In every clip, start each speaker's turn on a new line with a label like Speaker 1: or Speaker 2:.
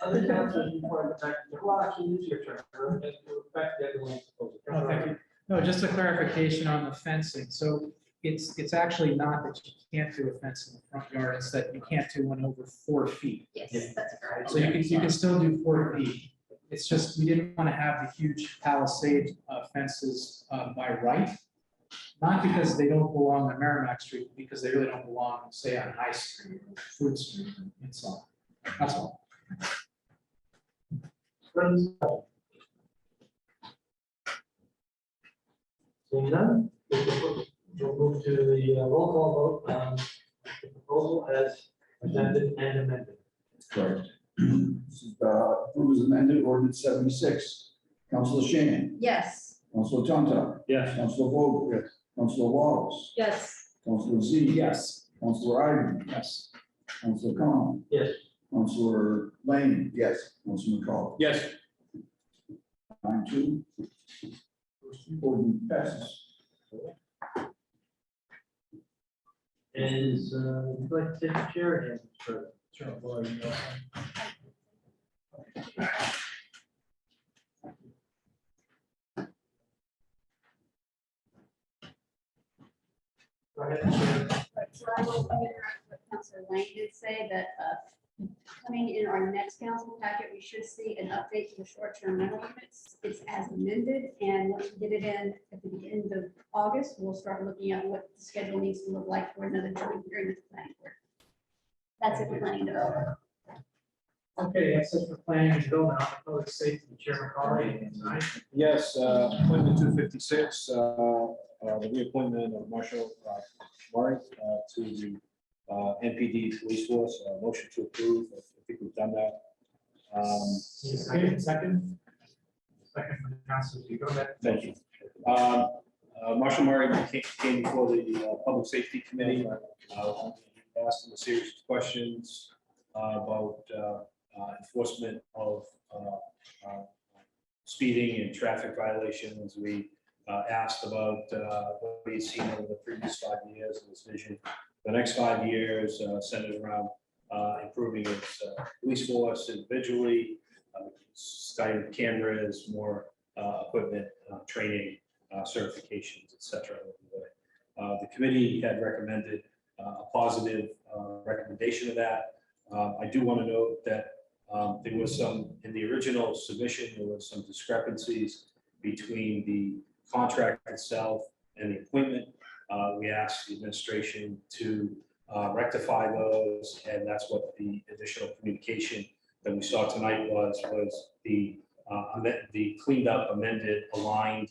Speaker 1: Other towns are required to protect, well, actually, use your term, or as to affect the other one's proposal.
Speaker 2: No, thank you. No, just a clarification on the fencing. So it's, it's actually not that you can't do a fence in the front yard, it's that you can't do one over four feet.
Speaker 1: Yeah.
Speaker 3: Yes, that's correct.
Speaker 2: So you can, you can still do four feet. It's just, we didn't want to have the huge palisade uh, fences uh, by right. Not because they don't belong on Merrimack Street, because they really don't belong, say, on High Street or Fruit Street and so on. That's all.
Speaker 1: Friends? Seeing none, we can put- we'll move to the uh, roll call vote on the proposal as presented and amended.
Speaker 4: Correct. This is, uh, approves amended ordinance seventy-six. Counselor Shan,
Speaker 3: Yes,
Speaker 4: Counselor Tonto,
Speaker 1: Yes.
Speaker 4: Counselor Vogel. Yes. Counselor Wallace,
Speaker 3: yes,
Speaker 4: Counselor Z.
Speaker 2: Yes.
Speaker 4: Counselor Ivan,
Speaker 2: Yes.
Speaker 4: Counselor Con.
Speaker 1: Yes.
Speaker 4: Counselor Lane. Yes. Counselor McCall.
Speaker 5: Yes.
Speaker 4: Nine two. Ordinance passes.
Speaker 1: Is, uh, would you like to take the chair again, sir?
Speaker 2: Sure, boy, you know.
Speaker 1: Go ahead, Chair.
Speaker 3: Right, so I will interact with Councilor Lang did say that uh, coming in our next council packet, we should see an update to the short-term rental limits. It's as amended, and once we get it in at the end of August, we'll start looking at what the schedule needs to look like for another joint hearing with the planning board. That's it, for planning development.
Speaker 1: Okay, that's it for planning and building, I'll propose safety, Chairman Carley, tonight.
Speaker 5: Yes, uh, appointment two fifty-six, uh, the reappointment of Marshall uh, Murray uh, to the uh, NPD police force, Uh, motion to approve, I think we've done that. Um,
Speaker 1: Need a Second, second. Second from Council, you go ahead.
Speaker 5: Thank you. Um, uh, Marshall Murray ca- came before the uh, Public Safety Committee, uh, asked him a series of questions uh, about uh, uh, enforcement of uh, uh, speeding and traffic violations. We uh, asked about uh, what he's seen over the previous five years and his vision. for The next five years uh, centered around uh, improving its uh, police force individually, uh, starting cameras, more uh, equipment, uh, training, uh, certifications, et cetera. along the way. Uh, The committee had recommended uh, a positive uh, recommendation of that. Uh, I do want to note that um, there was some, in the original submission, there was some discrepancies between the contract itself and the appointment. Uh, We asked the administration to uh, rectify those, and that's what the additional communication that we saw tonight was, was the uh, amend- the cleaned up, amended, aligned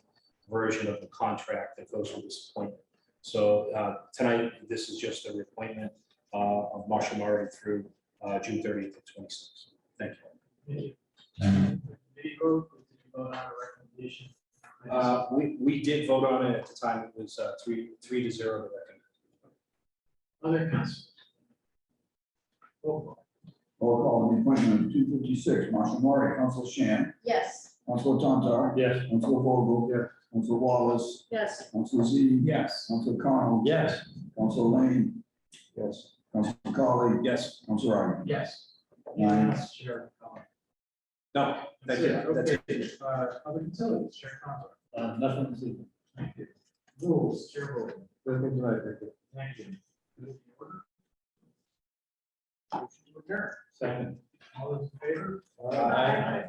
Speaker 5: version of the contract that goes with this appointment. So uh, tonight, this is just a reappointment uh, of Marshall Murray through uh, June thirtieth to twenty-sixth. Thank you.
Speaker 1: Did you vote, or did you vote on a recommendation?
Speaker 5: Uh, We, we did vote on it at the time. It was uh, three, three to zero to
Speaker 1: Other
Speaker 5: recommend.
Speaker 1: Oh, councils? Roll call.
Speaker 4: Roll call on the appointment of two fifty-six, Marshall Murray, Counselor Shan,
Speaker 3: Yes,
Speaker 4: Counselor Tonto,
Speaker 5: Yes.
Speaker 4: Counselor Vogel. Yes. Counselor Wallace,
Speaker 3: yes.
Speaker 4: Counselor Z.
Speaker 2: Yes.
Speaker 4: Counselor Con.
Speaker 5: Yes.
Speaker 4: Counselor Lane. Yes. Counselor McCauley.
Speaker 5: Yes.
Speaker 4: Counselor Ivan.
Speaker 1: Yes.
Speaker 4: Nine.
Speaker 1: Yes, Chair. Conlon.
Speaker 5: No, that's it. That's it.
Speaker 1: Okay, uh, Other utilities, Chair Conlon.
Speaker 6: Uh, nothing to see.
Speaker 1: Thank you. Rules, Chair Rowland. Thank you. Motion to adjourn.
Speaker 6: Second.
Speaker 1: All those in favor?
Speaker 5: Aye.